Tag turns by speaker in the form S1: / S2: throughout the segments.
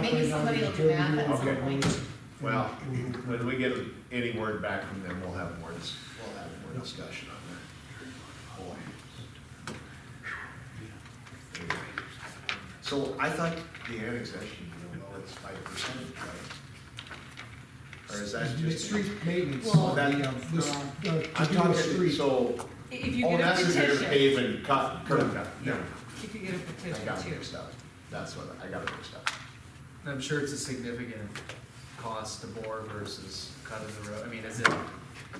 S1: maybe somebody will do that at some
S2: Okay.
S1: point.
S3: Well, when we get any word back from them, we'll have more, dis- we'll have more discussion on that. Boy. Anyway. So I thought the annexation, you know, well, it's five percent, right? Or is that
S2: It's
S3: just?
S2: Street maintenance,
S1: Well,
S2: on the, um, this, uh,
S3: I'm
S2: to do a
S3: talking,
S2: street.
S3: so,
S4: If you
S3: oh,
S4: get a
S3: that's if you're gonna
S4: petition,
S3: pave and cut, curb cut, yeah,
S4: if you get a
S3: I
S4: petition
S3: got it
S4: too.
S3: mixed up, that's what, I got it mixed up.
S5: And I'm sure it's a significant cost to bore versus cutting the road, I mean, is it,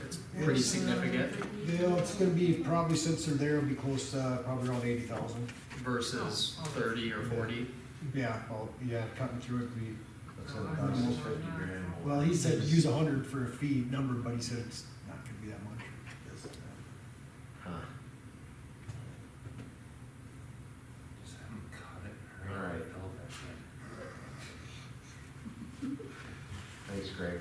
S5: it's pretty
S2: It's, uh,
S5: significant
S2: Yeah, it's gonna be, probably since they're there, it'll be close to uh, probably around eighty thousand.
S5: versus
S2: Oh,
S5: thirty or forty?
S2: Yeah, well, yeah, cutting through it'd be,
S3: That's
S4: Oh,
S3: what it costs, it's fifty grand.
S2: well, he said use a hundred for a fee number, but he said it's not gonna be that much.
S3: Huh. All right. Thanks, Greg.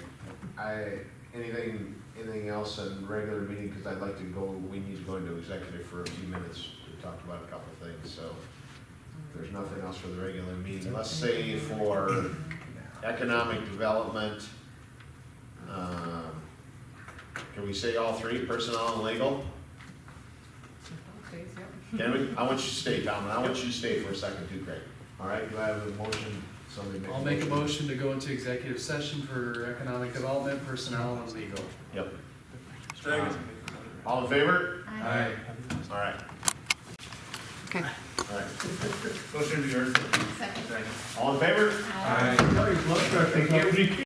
S3: I, anything, anything else on regular meeting, because I'd like to go, we need to go into executive for a few minutes. We talked about a couple of things, so if there's nothing else for the regular meeting. Let's say for economic development, um, can we say all three, personnel and legal?
S4: Okay, yep.
S3: Can we, I want you to stay, Tom, and I want you to stay for a second too, Greg. All right, do I have a motion? Somebody make a
S5: I'll
S3: motion.
S5: make a motion to go into executive session for economic development, personnel, and legal.
S3: Yep. All in favor?
S1: I-
S3: All right,
S4: Okay.
S3: all right.
S1: Second.
S3: All in favor?
S1: Aye.
S2: Thank you.